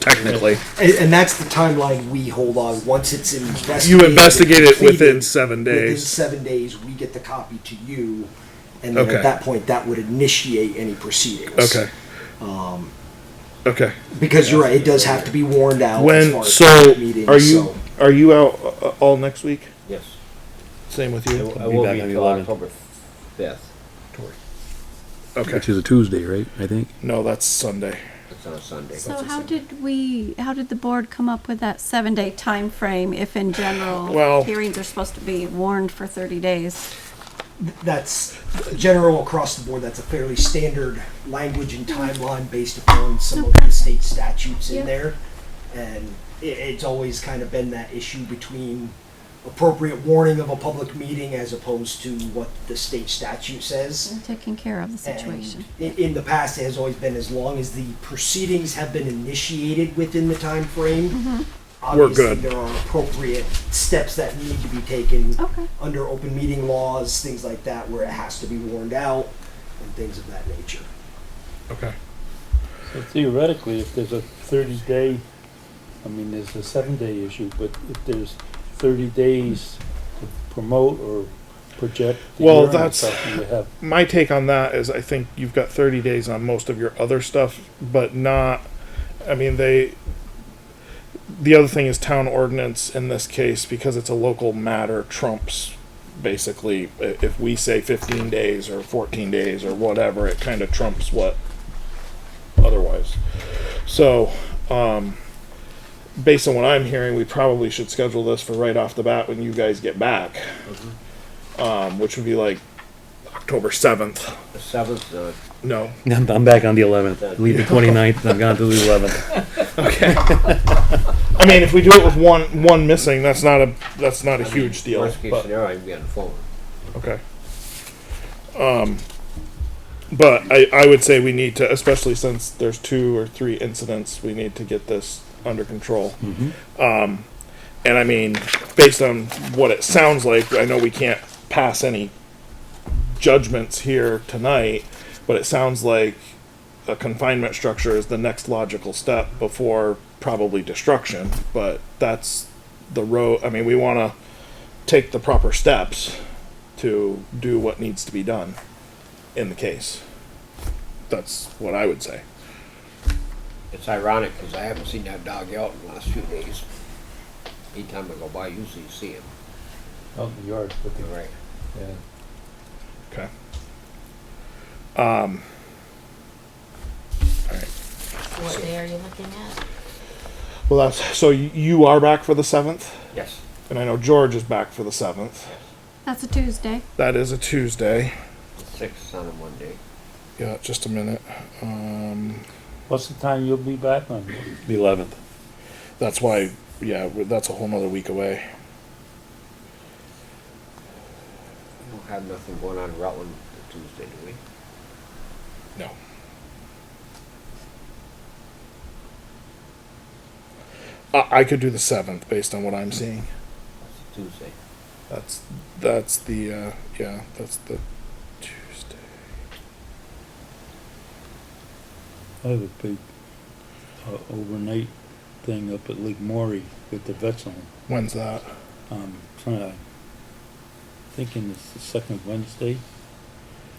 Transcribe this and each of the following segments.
technically. And, and that's the timeline we hold on. Once it's investigated, You investigate it completed, within seven Within days. seven days, we get the copy to you, and then Okay. at that point, that would initiate any proceedings. Um, Okay. Okay. Because you're right, it does have to be warned out. as far When, as so, public meetings, are you, so- are you out uh, uh, all next week? Yes. Same with I you? will- I Be will back be on the until 11th. October fifth. Okay. Which is a Tuesday, right? I think. No, that's Sunday. That's on a Sunday. So how did we, how did the board come up with that seven-day time frame? if in Well- general hearings are supposed to be warned for 30 days? that's general across the board. That's a fairly standard language and timeline based upon some of the state statutes in Yep. there. And it, it's always kind of been that issue between appropriate warning of a public meeting as opposed to what the state statute says. Taking care of the Mm, situation. And in, in the past, it has always been as long as the proceedings have been initiated within the time frame. We're obviously good. There are appropriate steps that need to be taken Okay. under open meeting laws, things like that, where it has to be warned out and things of that nature. Okay. So Theoretically, if there's a thirty day, I mean, there's a seven day issue, but if there's thirty days to promote or project the Well, urine and that's- stuff, you have, my take on that is I think you've got 30 days on most of your other stuff, but not. I mean, they. The other thing is town ordinance in this case, because it's a local matter, trumps basically. i- If we say 15 days or 14 days or whatever, it kind of trumps what otherwise. So, um, based on what I'm hearing, we probably should schedule this for right off the bat when you guys get back, um, which would be like October 7th. The seventh, uh, No. I'm, I'm back on the 11th. Leave the 29th, and I'm gone to the 11th. Okay. I mean, if we do it with one one missing, that's not a that's not a huge deal. worst case But, scenario, I can be on the phone. okay. Um, but I I would say we need to, especially since there's two or three incidents, we need to get this under control. Um, and I mean, based on what it sounds like, I know we can't pass any judgments here tonight, but it sounds like a confinement structure is the next logical step before probably destruction. But that's the road. I mean, we want to take the proper steps to do what needs to be done in the case. That's what I would say. It's ironic, cause I haven't seen that dog out in the last few days. Anytime I go by, usually you see him. out in the yard, but You're right. yeah. Okay. Um. All right. What day are you looking at? Well, that's so y- you are back for the seventh, Yes. and I know George is back for the seventh. That's a Tuesday. That is a Tuesday. The sixth on a Monday. Yeah, just a minute. Um, What's the time you'll be back on? The 11th. that's why. Yeah, w- that's a whole nother week away. We don't have nothing going on in Rutland the Tuesday, do we? No. I, I could do the seventh based on what I'm seeing. That's a Tuesday. That's that's the uh, yeah. That's the Tuesday. I have a big uh, overnight thing up at Lake Maury with the vets on. When's that? Um, trying to, thinking it's the second Wednesday.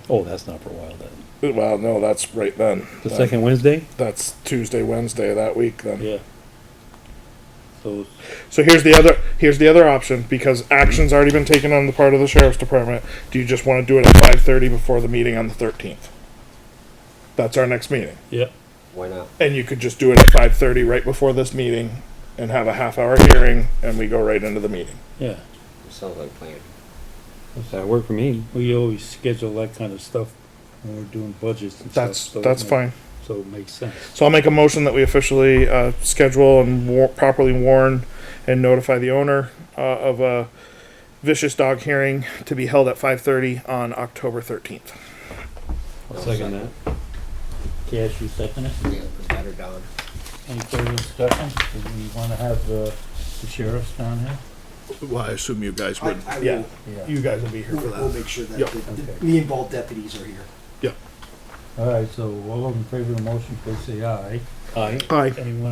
Oh, that's not for a while then. Well, no, that's right then. The Then second Wednesday? That's Tuesday, Wednesday that week then. Yeah. So it's So here's the other here's the other option because action's already been taken on the part of the sheriff's department. Do you just want to do it at five thirty before the meeting on the thirteenth? That's our next meeting, Yeah, Why not? and you could just do it at five thirty right before this meeting, and have a half hour hearing, and we go right into the meeting. yeah. It sounds like playing. That worked for me. We always schedule that kind of stuff when we're doing budgets and stuff. That's so it that's make- fine. So it makes sense. So I'll make a motion that we officially uh, schedule and war- properly warn and notify the owner uh, of a vicious dog hearing to be held at 5:30 on October 13th. I'll second that. Cash, you second it? Yeah, put that or down. Any further discussion? Do we wanna have uh, the sheriffs down here? Well, I assume you guys I, I yeah, will, you guys will be here for we'll we'll that. make sure that Yep. the- Okay. the, the involved deputies are here. All right, so all in favor of the motion, please say aye. Aye. Aye. Anyone